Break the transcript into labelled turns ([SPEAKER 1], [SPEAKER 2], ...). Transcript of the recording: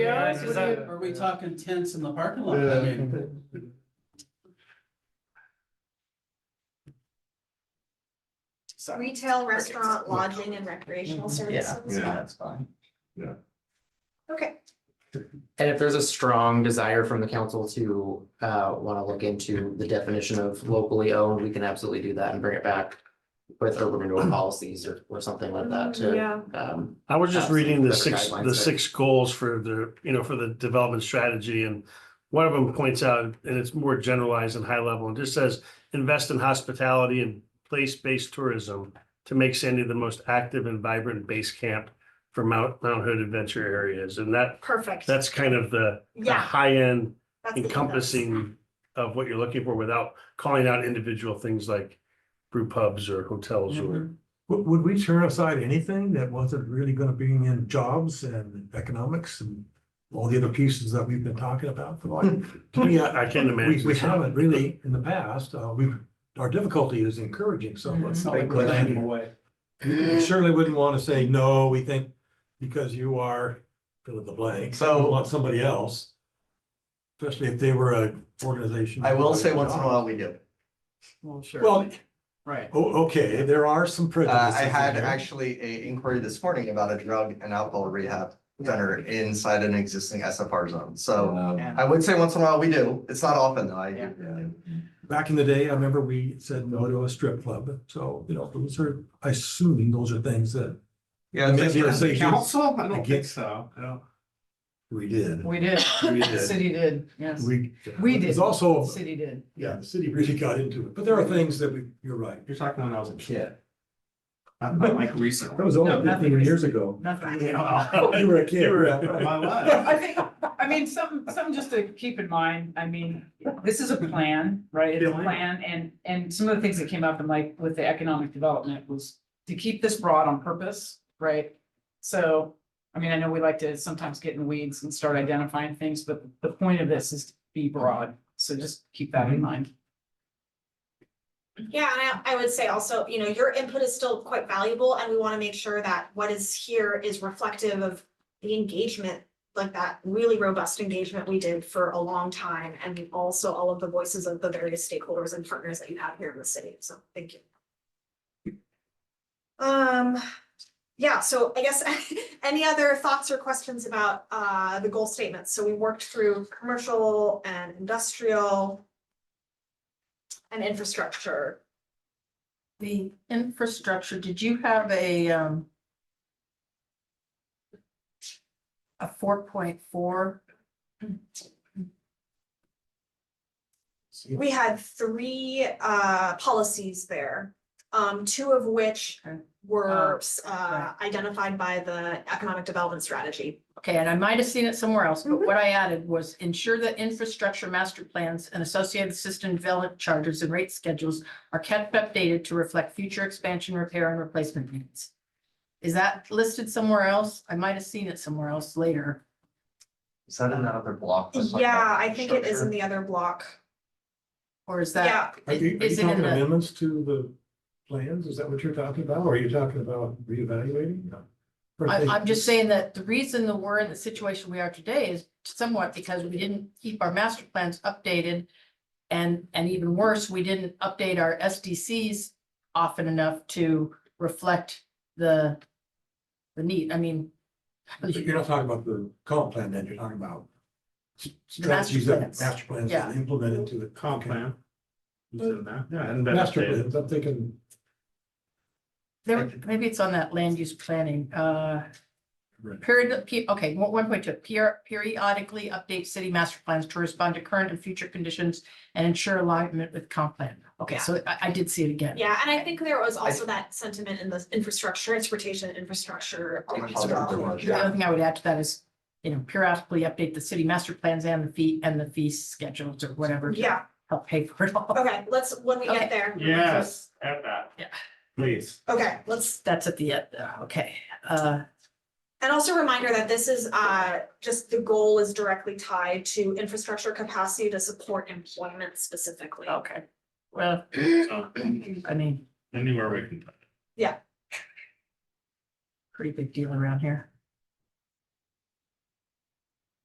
[SPEAKER 1] Yeah,
[SPEAKER 2] is
[SPEAKER 1] what
[SPEAKER 2] that-
[SPEAKER 1] Are you- are we talking tents in the parking lot? I mean,
[SPEAKER 3] Yeah.
[SPEAKER 2] So,
[SPEAKER 4] Retail, restaurant, lodging and recreational services.
[SPEAKER 3] Yeah.
[SPEAKER 5] That's fine.
[SPEAKER 4] Okay,
[SPEAKER 5] And if there's a strong desire from the council to uh want to look into the definition of locally owned, we can absolutely do that and bring it back. With urban renewal policies or or something like that to
[SPEAKER 4] Mm-hmm. yeah,
[SPEAKER 5] um.
[SPEAKER 3] I was just reading the
[SPEAKER 5] Better
[SPEAKER 3] six,
[SPEAKER 5] guidelines
[SPEAKER 3] the
[SPEAKER 5] there.
[SPEAKER 3] six goals for the, you know, for the development strategy and one of them points out, and it's more generalized and high level, and just says, invest in hospitality and place-based tourism to make Sandy the most active and vibrant base camp for Mount, Mount Hood adventure areas. And that,
[SPEAKER 4] perfect.
[SPEAKER 3] that's kind of the the
[SPEAKER 4] Yeah.
[SPEAKER 3] high-end
[SPEAKER 4] that's the-
[SPEAKER 3] encompassing of what you're looking for without calling out individual things like brew pubs or hotels or
[SPEAKER 6] Would, would we turn aside anything that wasn't really gonna bring in jobs and economics and all the other pieces that we've been talking about for like? to me, I-
[SPEAKER 3] I can't
[SPEAKER 6] We,
[SPEAKER 3] imagine.
[SPEAKER 6] we haven't really in the past, uh, we, our difficulty is encouraging someone.
[SPEAKER 1] it's not like we're laying them away.
[SPEAKER 6] You certainly wouldn't wanna say, no, we think because you are fill in the blank, so want somebody else. Especially if they were a organization.
[SPEAKER 7] I will say once in a while we do.
[SPEAKER 1] Well, sure.
[SPEAKER 6] Well,
[SPEAKER 1] Right.
[SPEAKER 6] o- okay, there are some
[SPEAKER 7] Uh,
[SPEAKER 6] prejudices.
[SPEAKER 7] I
[SPEAKER 6] in
[SPEAKER 7] had
[SPEAKER 6] there.
[SPEAKER 7] actually a inquiry this morning about a drug and alcohol rehab center inside an existing SFR zone. So
[SPEAKER 1] Yeah.
[SPEAKER 7] I would say once in a while we do. It's not often though. I do.
[SPEAKER 6] Back in the day, I remember we said no to a strip club, so, you know, those are, I assuming those are things that
[SPEAKER 7] Yeah.
[SPEAKER 6] Maybe
[SPEAKER 7] it's-
[SPEAKER 6] it's- Say yes.
[SPEAKER 1] Council? I don't think
[SPEAKER 6] Against-
[SPEAKER 1] so. I don't-
[SPEAKER 6] we did.
[SPEAKER 8] We did,
[SPEAKER 6] We
[SPEAKER 8] the city did, yes,
[SPEAKER 6] We.
[SPEAKER 8] We
[SPEAKER 6] There's
[SPEAKER 8] did. the
[SPEAKER 6] also,
[SPEAKER 8] city did.
[SPEAKER 6] yeah, the city really got into it, but there are things that we, you're right.
[SPEAKER 1] You're talking when I was a kid. Not not like recently.
[SPEAKER 6] That was
[SPEAKER 8] No,
[SPEAKER 6] only
[SPEAKER 8] nothing
[SPEAKER 6] fifteen years ago.
[SPEAKER 8] Nothing.
[SPEAKER 6] You were a kid.
[SPEAKER 3] You were-
[SPEAKER 6] right?
[SPEAKER 1] My life.
[SPEAKER 8] I think, I mean, some, some just to keep in mind, I mean, this is a plan, right? It's a
[SPEAKER 1] Yeah.
[SPEAKER 8] plan and, and some of the things that came up and like with the economic development was to keep this broad on purpose, right? So, I mean, I know we like to sometimes get in weeds and start identifying things, but the point of this is to be broad. So just keep that in mind.
[SPEAKER 4] Yeah, and I, I would say also, you know, your input is still quite valuable and we want to make sure that what is here is reflective of the engagement, like that really robust engagement we did for a long time and also all of the voices of the various stakeholders and partners that you have here in the city. So thank you. Um, yeah, so I guess any other thoughts or questions about uh the goal statements? So we worked through commercial and industrial and infrastructure.
[SPEAKER 9] The infrastructure, did you have a, um, a four point four?
[SPEAKER 4] We had three uh policies there, um two of which
[SPEAKER 9] Okay. Um,
[SPEAKER 4] were uh
[SPEAKER 9] right.
[SPEAKER 4] identified by the economic development strategy.
[SPEAKER 9] Okay, and I might have seen it somewhere else, but
[SPEAKER 4] Mhm.
[SPEAKER 9] what I added was ensure that infrastructure master plans and associated system development charters and rate schedules are kept updated to reflect future expansion, repair and replacement needs. Is that listed somewhere else? I might have seen it somewhere else later.
[SPEAKER 7] Is that in that other block? that's like
[SPEAKER 4] Yeah,
[SPEAKER 7] that
[SPEAKER 4] I think it is in
[SPEAKER 7] structure?
[SPEAKER 4] the other block.
[SPEAKER 9] Or oh, is that,
[SPEAKER 4] Yeah,
[SPEAKER 6] Are you, are you
[SPEAKER 9] is it in
[SPEAKER 6] talking
[SPEAKER 9] the,
[SPEAKER 6] amendments to the plans? Is that what you're talking about? Or are you talking about reevaluating? No. Or
[SPEAKER 9] I,
[SPEAKER 6] they-
[SPEAKER 9] I'm just saying that the reason that we're in the situation we are today is somewhat because we didn't keep our master plans updated. And, and even worse, we didn't update our SDCs often enough to reflect the, the need, I mean.
[SPEAKER 6] So You're not talking about the comp plan then, you're talking about s-
[SPEAKER 9] The master
[SPEAKER 6] strategies that
[SPEAKER 9] plans.
[SPEAKER 6] master plans
[SPEAKER 9] Yeah.
[SPEAKER 6] that implement into the
[SPEAKER 1] Comp plan. Who's in that? Yeah, I hadn't been
[SPEAKER 6] Master
[SPEAKER 1] updated.
[SPEAKER 6] plans, I'm thinking,
[SPEAKER 9] There, maybe it's on that land use planning, uh.
[SPEAKER 6] Right.
[SPEAKER 9] Period, P- okay, one point two, per- periodically update city master plans to respond to current and future conditions and ensure alignment with comp plan. Okay, so I, I did see it again.
[SPEAKER 4] yeah, and I think there was also that sentiment in the infrastructure, transportation, and infrastructure.
[SPEAKER 7] Oh,
[SPEAKER 4] update as
[SPEAKER 7] I'll
[SPEAKER 4] well.
[SPEAKER 7] do it.
[SPEAKER 9] The only thing I would add to that is, you know, periodically update the city master plans and the fee, and the fee schedules or whatever. to
[SPEAKER 4] Yeah,
[SPEAKER 9] Help pay for it all.
[SPEAKER 4] okay, let's, when we
[SPEAKER 9] Okay.
[SPEAKER 4] get there.
[SPEAKER 1] Yes, add that.
[SPEAKER 9] Yeah.
[SPEAKER 1] Please.
[SPEAKER 4] Okay, let's
[SPEAKER 9] That's at the end, uh, okay, uh.
[SPEAKER 4] And also a reminder that this is, uh, just the goal is directly tied to infrastructure capacity to support employment specifically.
[SPEAKER 9] Okay. Well,
[SPEAKER 1] So,
[SPEAKER 9] I mean,
[SPEAKER 1] Anywhere we can.
[SPEAKER 9] pretty big deal around here.